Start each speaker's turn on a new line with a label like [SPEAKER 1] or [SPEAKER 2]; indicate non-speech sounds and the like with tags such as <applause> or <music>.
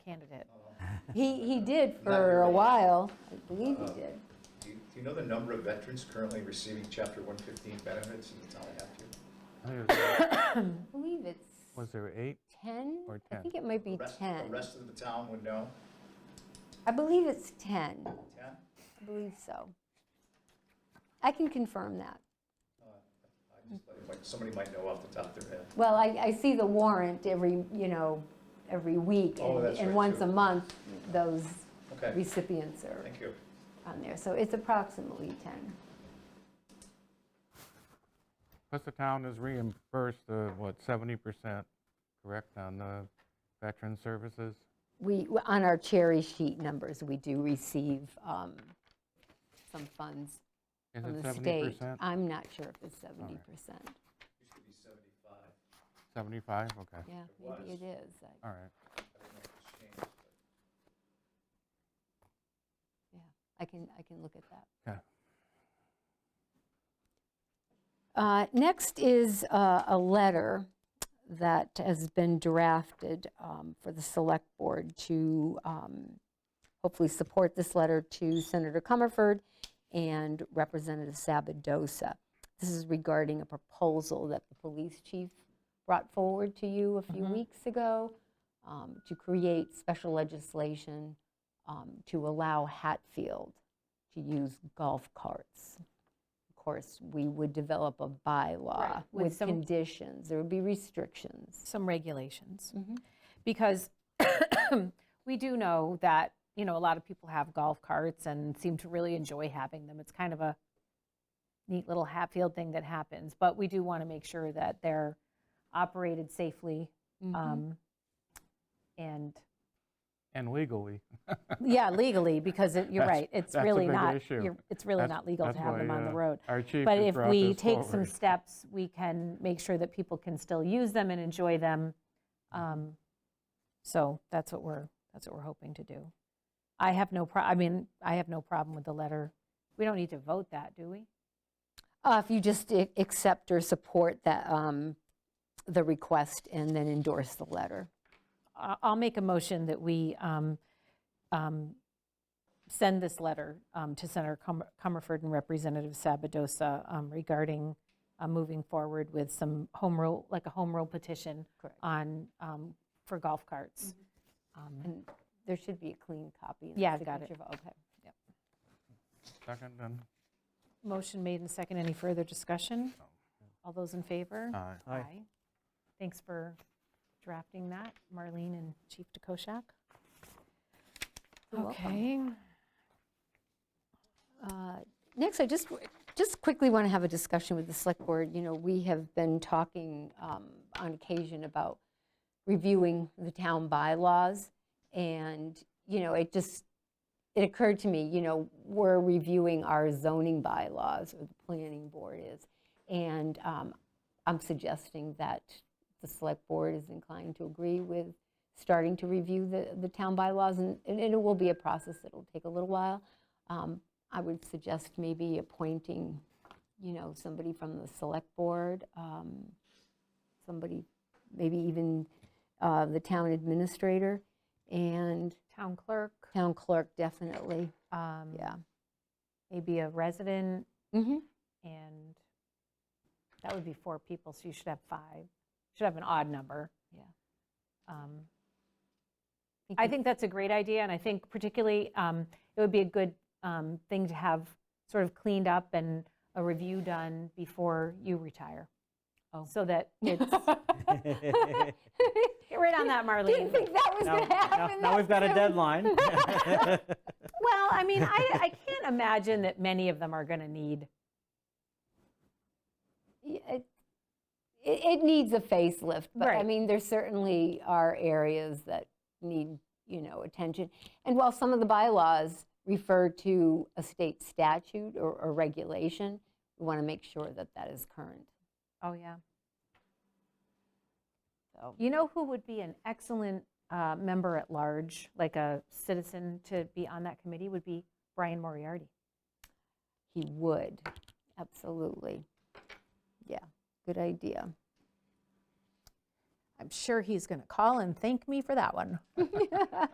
[SPEAKER 1] <laughs>
[SPEAKER 2] He, he did
[SPEAKER 1] Not
[SPEAKER 2] for a
[SPEAKER 1] really.
[SPEAKER 2] while, I believe
[SPEAKER 1] Uh,
[SPEAKER 2] he did.
[SPEAKER 1] Do you do you know the number of veterans currently receiving Chapter 115 benefits in the town of Hatfield?
[SPEAKER 3] I think it was-
[SPEAKER 2] I believe it's
[SPEAKER 3] Was there eight?
[SPEAKER 2] 10?
[SPEAKER 3] or
[SPEAKER 2] I
[SPEAKER 3] 10?
[SPEAKER 2] think it might be
[SPEAKER 1] The rest- The
[SPEAKER 2] 10.
[SPEAKER 1] rest of the town would know?
[SPEAKER 2] I believe it's 10.
[SPEAKER 1] 10?
[SPEAKER 2] I believe so. I can confirm that.
[SPEAKER 1] Uh, I just thought it might- Somebody might know off the top of their head.
[SPEAKER 2] Well, I, I see the warrant every, you know, every week.
[SPEAKER 1] Oh,
[SPEAKER 2] and-
[SPEAKER 1] that's
[SPEAKER 2] And
[SPEAKER 1] right,
[SPEAKER 2] once
[SPEAKER 1] too.
[SPEAKER 2] a month, those
[SPEAKER 1] Okay,
[SPEAKER 2] recipients are
[SPEAKER 1] thank you.
[SPEAKER 2] on there. So it's approximately 10.
[SPEAKER 3] Plus the town is reimbursed, uh, what, 70%, correct, on the veteran services?
[SPEAKER 2] We, on our cherry sheet numbers, we do receive um, some funds
[SPEAKER 3] Is
[SPEAKER 2] from
[SPEAKER 3] it
[SPEAKER 2] the state.
[SPEAKER 3] 70%?
[SPEAKER 4] Uh,
[SPEAKER 2] I'm not sure if it's 70%.
[SPEAKER 1] Used to be 75.
[SPEAKER 3] 75, okay,
[SPEAKER 2] Yeah, maybe it is. I-
[SPEAKER 3] all right.
[SPEAKER 1] I don't know if it's changed, but-
[SPEAKER 2] Yeah, I can, I can look at that.
[SPEAKER 3] Yeah.
[SPEAKER 2] Uh, Next is uh, a letter that has been drafted um, for the Select Board to um, hopefully support this letter to Senator Comerford and Representative Sabodosa. This is regarding a proposal that the police chief brought forward to you a
[SPEAKER 4] Mm-hmm.
[SPEAKER 2] few weeks ago um, to create special legislation um, to allow Hatfield to use golf carts. Of course, we would develop a bylaw
[SPEAKER 4] Right, with
[SPEAKER 2] with
[SPEAKER 4] some-
[SPEAKER 2] conditions, there would be restrictions.
[SPEAKER 4] some regulations.
[SPEAKER 2] Mhm.
[SPEAKER 4] Because <coughs> we do know that, you know, a lot of people have golf carts and seem to really enjoy having them. It's kind of a neat little Hatfield thing that happens, but we do want to make sure that they're operated safely
[SPEAKER 3] Mm-hmm.
[SPEAKER 4] um, and,
[SPEAKER 3] And legally.
[SPEAKER 4] yeah, legally, because it- you're
[SPEAKER 3] That's-
[SPEAKER 4] right, it's
[SPEAKER 3] that's a
[SPEAKER 4] really
[SPEAKER 3] big
[SPEAKER 4] not,
[SPEAKER 3] issue.
[SPEAKER 4] you're- it's really
[SPEAKER 3] That's-
[SPEAKER 4] not legal to
[SPEAKER 3] that's
[SPEAKER 4] have them
[SPEAKER 3] why,
[SPEAKER 4] on the
[SPEAKER 3] uh,
[SPEAKER 4] road.
[SPEAKER 3] Our chief
[SPEAKER 4] But
[SPEAKER 3] has
[SPEAKER 4] if
[SPEAKER 3] brought
[SPEAKER 4] we
[SPEAKER 3] this
[SPEAKER 4] take some
[SPEAKER 3] forward.
[SPEAKER 4] steps, we can make sure that people can still use them and enjoy them. Um, So that's what we're, that's what we're hoping to do. I have no, pro- I mean, I have no problem with the letter. We don't need to vote that, do we?
[SPEAKER 2] Uh, If you just a- accept or support that, um, the request and then endorse the letter.
[SPEAKER 4] I- I'll make a motion that we um, um, send this letter um, to Senator Cum- Comerford and Representative Sabodosa um, regarding uh, moving forward with some home rule, like a home rule petition
[SPEAKER 2] Correct.
[SPEAKER 4] on, um, for golf carts. Um,
[SPEAKER 2] And there should be a clean copy. and a
[SPEAKER 4] Yeah, I've got it.
[SPEAKER 2] signature of- Okay.
[SPEAKER 3] Second, then?
[SPEAKER 4] Motion made and second. Any further discussion? All those in favor?
[SPEAKER 3] Aye.
[SPEAKER 4] Thanks for drafting that, Marlene and Chief DeKoschak.
[SPEAKER 2] You're welcome.
[SPEAKER 4] Okay.
[SPEAKER 2] Uh, Next, I just, just quickly want to have a discussion with the select board. You know, we have been talking um, on occasion about reviewing the town bylaws. And, you know, it just, it occurred to me, you know, we're reviewing our zoning bylaws, or the planning board is. And um, I'm suggesting that the select board is inclined to agree with starting to review the, the town bylaws. And and it will be a process that'll take a little while. Um, I would suggest maybe appointing, you know, somebody from the select board, um, somebody, maybe even uh, the town administrator and
[SPEAKER 4] Town clerk,
[SPEAKER 2] town clerk, definitely,
[SPEAKER 4] um,
[SPEAKER 2] yeah.
[SPEAKER 4] maybe a resident,
[SPEAKER 2] Mhm.
[SPEAKER 4] and that would be four people, so you should have five. Should have an odd number.
[SPEAKER 2] Yeah.
[SPEAKER 4] Um, I think that's a great idea, and I think particularly, um, it would be a good um, thing to have sort of cleaned up and a review done before you retire.
[SPEAKER 2] Oh.
[SPEAKER 4] So <laughs> that it's,
[SPEAKER 2] <laughs> Didn't
[SPEAKER 4] get right on <laughs> that, Marlene.
[SPEAKER 2] think that was
[SPEAKER 5] <laughs> Now-
[SPEAKER 2] going to
[SPEAKER 5] now,
[SPEAKER 2] happen.
[SPEAKER 5] now we've got a deadline.
[SPEAKER 4] Well, I mean, I, I can't imagine that many of them are going to need,
[SPEAKER 2] uh, It, it needs a facelift, but I
[SPEAKER 4] Right.
[SPEAKER 2] mean, there certainly are areas that need, you know, attention. And while some of the bylaws refer to a state statute or, or regulation, we want to make sure that that is current,
[SPEAKER 4] oh, yeah.
[SPEAKER 2] so.
[SPEAKER 4] You know who would be an excellent uh, member at large, like a citizen to be on that committee, would be Brian Moriarty.
[SPEAKER 2] He would, absolutely. Yeah, good idea.
[SPEAKER 4] I'm sure he's going to call and thank me for that one.